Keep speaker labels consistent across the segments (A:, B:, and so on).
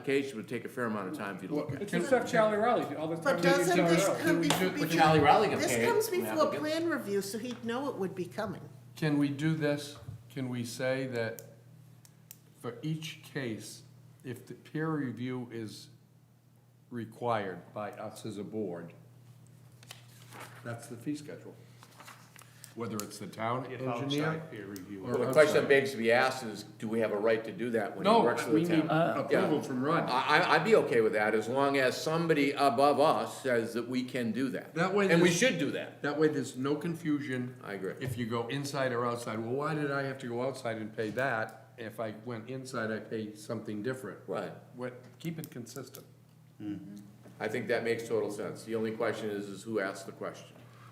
A: application would take a fair amount of time if you look at. it.
B: It's just like Charlie Riley, all the time.
C: But
B: they did
C: doesn't
B: Charlie
C: this
B: Riley.
C: come
D: we do-
C: before?
D: would Charlie Riley get
C: This
D: paid
C: comes
D: from the
C: before
D: applicant?
C: plan review, so he'd know it would be coming.
E: Can we do this? Can we say that for each case, if the peer review is required by us as a board, that's the fee schedule? Whether it's the town
F: If
E: engineer
F: outside peer review.
E: or
A: Well, the
E: outside.
A: question begs to be asked is, do we have a right to do that when he
E: No,
A: works for
E: we
A: the
E: need
A: town?
E: approval from Rod.
A: I, I, I'd be okay with that, as long as somebody above us says that we can do that.
E: That way
A: And we
E: there's-
A: should do that.
E: That way, there's no confusion.
A: I agree.
E: If you go inside or outside, well, why did I have to go outside and pay that? If I went inside, I pay something different.
A: Right.
E: What, keep it consistent.
A: I think that makes total sense. The only question is, is who asked the question?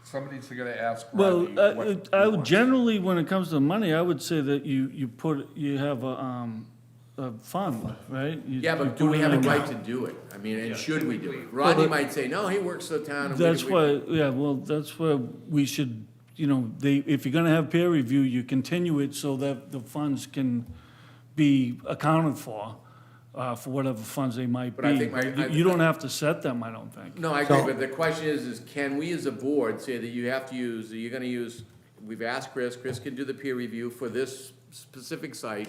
E: Somebody's gonna ask
G: Well,
E: Rodney
G: uh,
E: what
G: it-
E: he
G: I would
E: wants.
G: generally, when it comes to money, I would say that you, you put, you have a, um, a fund, right? You-
A: Yeah,
G: you
A: but do we
G: it in
A: have a
G: an
A: right
G: account.
A: to do it? I mean, and should we do it? Rodney might say, no, he works for the town. and we-
G: That's
A: we-
G: why, yeah, well, that's where we should, you know, they, if you're gonna have peer review, you continue it so that the funds can be accounted for, uh, for whatever funds they might be.
A: But I think my-
G: You- You don't have to set them, I don't think.
A: No, I agree, but the question is, is can we as a board say that you have to use, you're gonna use, we've asked Chris, Chris can do the peer review for this specific site,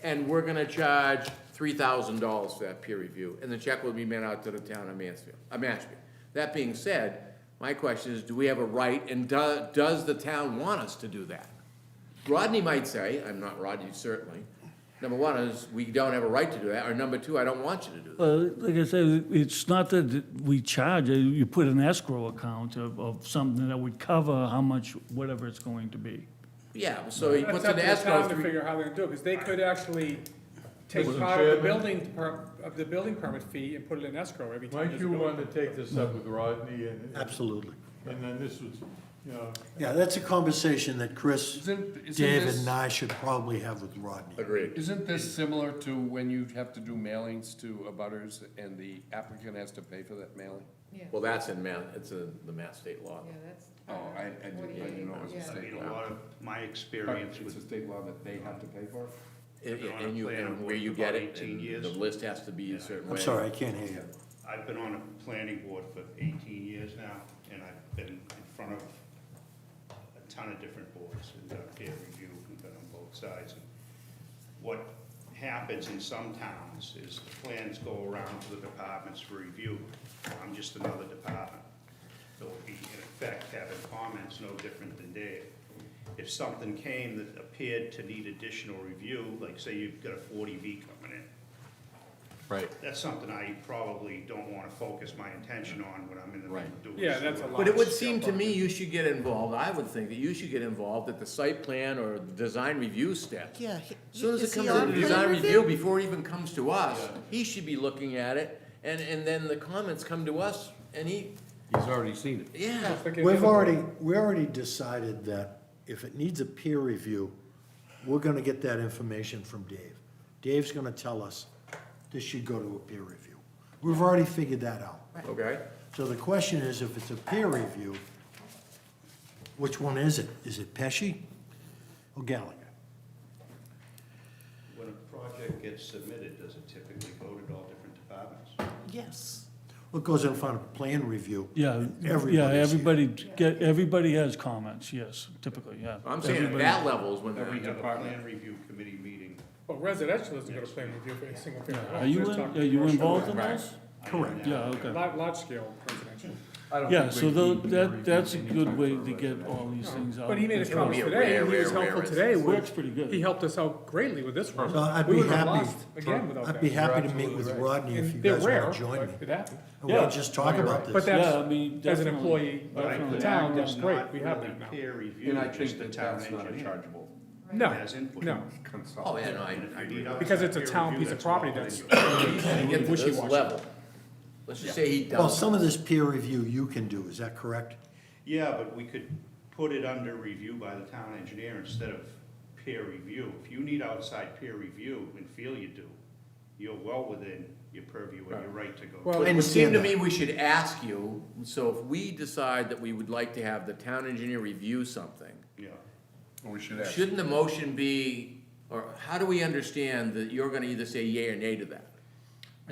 A: and we're gonna charge three thousand dollars for that peer review, and the check will be made out to the town of Mansfield, uh, Mashpee. That being said, my question is, do we have a right, and do, does the town want us to do that? Rodney might say, I'm not Rodney, certainly, number one is, we don't have a right to do that, or number two, I don't want you to do that.
G: Well, like I said, it's not that we charge, uh, you put an escrow account of, of something that would cover how much, whatever it's going to be.
A: Yeah, so he
B: That's
A: puts
B: up
A: an
B: to the
A: escrow.
B: town to
A: three-
B: figure out how they do it, because they could actually take
F: Mr.
B: part of the
F: Chairman?
B: building, per- of the building permit fee and put it in escrow every time.
F: Mike,
B: there's a
F: you
H: uh,
B: building.
F: wanted to take this up with Rodney and,
D: Absolutely.
F: and then this was, you know,
D: Yeah, that's a conversation that Chris,
E: Isn't- isn't
D: Dave,
E: this-
D: and I should probably have with Rodney.
A: Agreed.
E: Isn't this similar to when you have to do mailings to abutters and the applicant has to pay for that mailing?
I: Yeah,
A: Well, that's in Mass, it's in the Mass state law.
I: yeah, that's.
E: Oh, I, I didn't, I didn't know it was a
I: Yeah.
E: state
H: In a
E: law.
H: lot of my
E: But
H: experience
E: It's a
H: with,
E: state law that they have to pay for?
A: And
H: Been on
A: and
H: a
A: you,
H: plan
A: and
H: of
A: where you
H: work
A: get
H: about
A: it,
H: 18
A: and
H: years.
A: the list has to be a certain way.
D: I'm sorry, I can't hear you.
H: I've been on a planning board for eighteen years now, and I've been in front of a ton of different boards, and done peer review, and been on both sides. And What happens in some towns is the plans go around to the departments for review. I'm just another department. They'll be, in effect, having comments no different than Dave. If something came that appeared to need additional review, like say you've got a forty B coming in,
E: Right.
H: that's something I probably don't want to focus my intention on when I'm in the middle of doing.
B: Yeah, that's a
H: something.
B: lot.
A: But it would seem to me you should get involved, I would think that you should get involved at the site plan or the design review step. As
C: Yeah. he-
A: Soon as
C: is
A: it
C: he
A: comes
C: on
A: to the
C: plan
A: design review, before it even comes to us, he should be looking at it, and, and then the comments come to us, and he,
E: He's already seen it.
A: yeah.
B: It's like any
D: We've
B: other-
D: already, we already decided that if it needs a peer review, we're gonna get that information from Dave. Dave's gonna tell us this should go to a peer review. We've already figured that out.
A: Okay.
D: So the question is, if it's a peer review, which one is it? Is it Pesci or Gallagher?
H: When a project gets submitted, does it typically go to all different departments?
C: Yes.
D: Well, it goes in front of plan review.
G: Yeah,
D: and
G: yeah,
D: everybody's here.
G: everybody, get, everybody has comments, yes, typically, yeah.
A: I'm saying at
G: Everybody-
A: that level is when that.
H: We have a plan review committee meeting.
B: Well, residential doesn't go to plan review for a single family.
G: Are you, in- are you involved in those?
D: Correct.
G: Yeah, okay.
B: Large, large scale residential.
E: I don't
G: Yeah,
E: think
G: so
E: we
G: tho-
E: need to
G: that,
E: review
G: that's a good
E: anytime
G: way
E: for
G: to get
E: residential.
G: all these things out.
B: But he made his
G: That's right.
B: comments
A: be a
B: today,
A: rare,
B: and he was
A: rare,
B: helpful
A: rare
B: today. with-
G: Works pretty good.
B: He helped us out greatly with this one.
D: So I'd
B: We
D: be
B: would've
D: happy,
B: lost Again without that.
D: I'd be happy to meet with Rodney if you
B: And they're
D: guys
B: rare,
D: wanna join me.
B: but it happened.
D: And we'll
G: Yeah.
D: just talk about
B: But
D: this.
G: Yeah, I mean,
B: that's, as an
G: definitely.
B: employee
H: But I
B: of the
H: put
B: town,
H: that
B: that's
H: is
B: great,
H: not
B: we have
H: really
B: that now.
H: Peer review,
E: And I
H: just
E: think
H: the
E: that
H: town
E: that's not a
H: engineer.
E: chargeable
B: No,
H: Has input.
B: no,
E: consult.
A: Oh, yeah, no, I,
H: And if
A: I
H: you
A: agree.
H: need outside
B: because it's a
H: peer
B: town
H: review,
B: piece of
H: all
B: property
H: then
B: that's
H: you-
A: When you get to this
B: wishy-washy.
A: level, let's just say he does.
D: Well, some of this peer review you can do, is that correct?
H: Yeah, but we could put it under review by the town engineer instead of peer review. If you need outside peer review and feel you do, you're well within your purview and your right to go.
B: Well,
A: It would seem
D: understand
A: to
D: that.
A: me we should ask you, so if we decide that we would like to have the town engineer review something,
H: Yeah.
E: We should ask.
A: shouldn't the motion be, or how do we understand that you're gonna either say yea or nay to that?